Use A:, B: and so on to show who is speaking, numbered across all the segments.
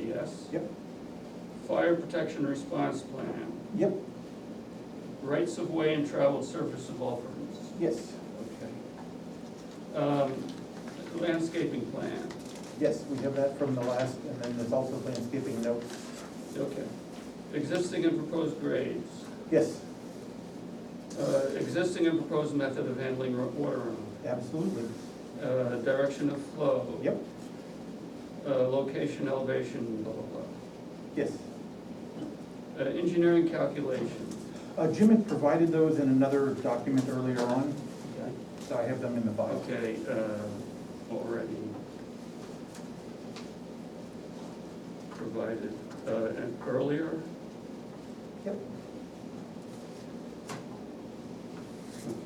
A: yes.
B: Yep.
A: Fire protection response plan,
B: Yep,
A: rights of way and traveled surface of all permits.
B: yes,
A: Okay. Um, Landscaping plan,
B: yes, we have that from the last, and then there's also landscaping note.
A: okay. Existing and proposed grades,
B: Yes,
A: uh, existing and proposed method of handling ro- water runoff,
B: absolutely.
A: uh, direction of flow.
B: Yep,
A: uh, Location, elevation, blah, blah,
B: yes.
A: blah. Uh, Engineering calculation,
B: Uh, Jim had provided those in another document earlier on, so I have them in the file.
A: Okay, uh, already provided uh, and earlier,
B: Yep,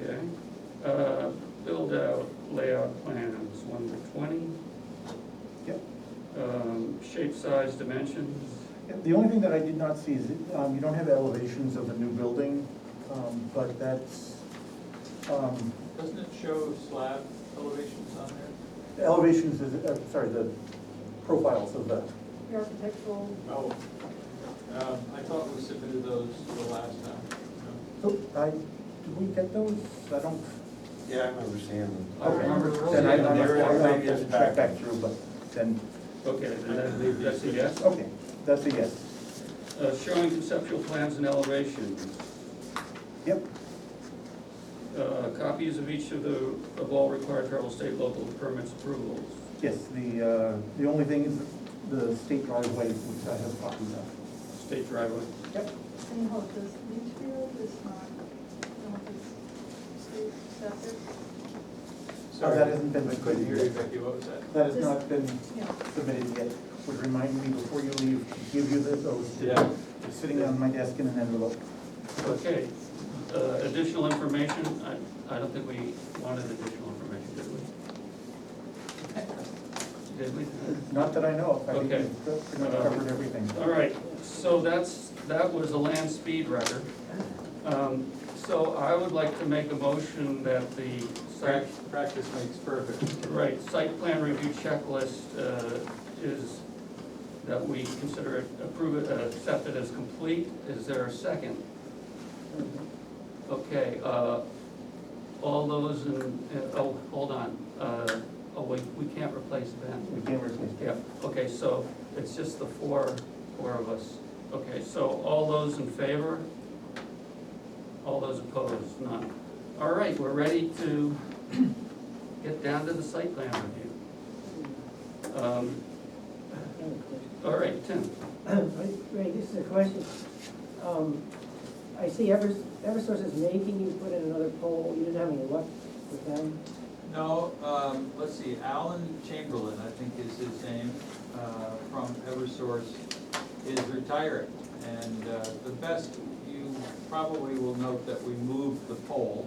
A: okay. Uh, Build out layout plans, one to twenty,
B: yep.
A: um, shape, size, dimensions,
B: Yep, The only thing that I did not see is, um, you don't have elevations of the new building, um, but that's, um,
C: Doesn't it show slab elevations on there?
B: the elevations is, uh, sorry, the profiles of the,
D: architectural,
C: Oh. Um, I thought we submitted those the last time. No?
B: oh, I, did we get those? I don't.
E: Yeah, I remember seeing them.
A: I remember
B: Then I, I
A: seeing
B: must-
E: They're in
B: I have
E: previous
B: to check back through, but then,
A: okay, then that- that's a yes.
B: okay, that's a yes.
A: Uh, Showing conceptual plans and elevations,
B: Yep,
A: Uh, copies of each of the, of all required federal, state, local permits approvals.
B: yes, the, uh, the only thing is the state driveway, which I have copies of.
A: State driveway,
B: Yep,
D: and hope this Litchfield is not, don't it's state septic,
B: Oh, that hasn't been-
C: I couldn't hear you, Becky, what was that?
B: that has not been
D: yeah.
B: submitted yet. Would remind me before you leave to give you this, those.
C: Yeah.
B: It's sitting on my desk in an envelope.
A: okay. Uh, Additional information, I, I don't think we wanted additional information, did we? Did we?
B: Not that I know of, I think
A: Okay.
B: we've pretty much covered everything.
A: All right, so that's, that was a land speed record. Um, So I would like to make a motion that the site,
C: Prac- Practice makes perfect.
A: right, site plan review checklist uh, is, that we consider it, approve it, uh, accept it as complete. Is there a second? Okay, uh, all those in, in- oh, hold on, uh, oh, we, we can't replace Ben.
B: We can't replace
A: Yeah,
B: that.
A: okay, so it's just the four, four of us. Okay, so all those in favor? All those opposed, none. All right, we're ready to get down to the site plan review. Um, All right, Tim,
F: Ray, this is a question. Um, I see Evers- Eversource is making you put in another poll. You didn't have any luck with them?
C: No, um, let's see, Alan Chamberlain, I think is his name, uh, from Eversource, is retiring. And uh, the best, you probably will note that we moved the poll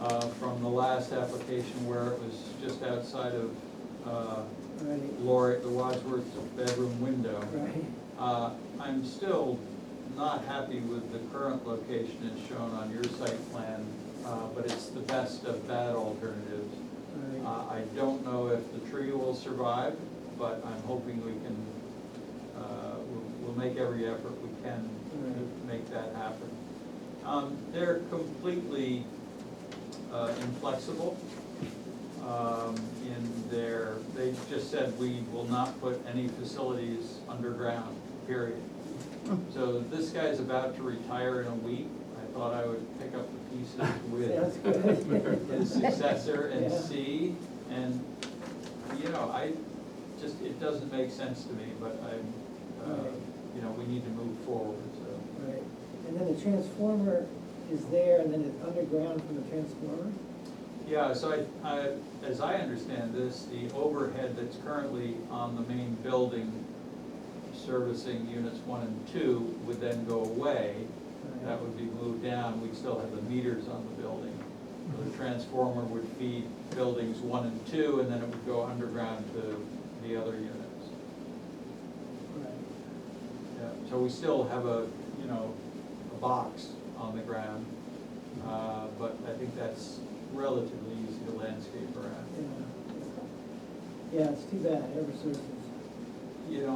C: uh, from the last application where it was just outside of uh,
F: Right,
C: Lori, the Wadsworth's bedroom window.
F: right.
C: Uh, I'm still not happy with the current location as shown on your site plan, uh, but it's the best of bad alternatives. Uh,
F: right.
C: I don't know if the tree will survive, but I'm hoping we can, uh, we'll, we'll make every effort we can to
F: Right.
C: make that happen. Um, They're completely uh, inflexible um, in their, they just said, we will not put any facilities underground, period.
F: Hmm.
C: So this guy's about to retire in a week. I thought I would pick up the pieces with
F: That's good.
C: his successor and
F: Yeah.
C: see, and, you know, I, just, it doesn't make sense to me, but I'm, uh,
F: Right.
C: you know, we need to move forward, so.
F: Right. And then the transformer is there and then it's underground from the transformer?
C: Yeah, so I, I, as I understand this, the overhead that's currently on the main building servicing units one and two would then go away. That would be moved down, we'd still have the meters on the building. So The transformer would feed buildings one and two, and then it would go underground to the other units.
F: Right.
C: Yeah, So we still have a, you know, a box on the ground, uh, but I think that's relatively easy to landscape around.
F: Yeah. Yeah, it's too bad. Eversource is
C: You know,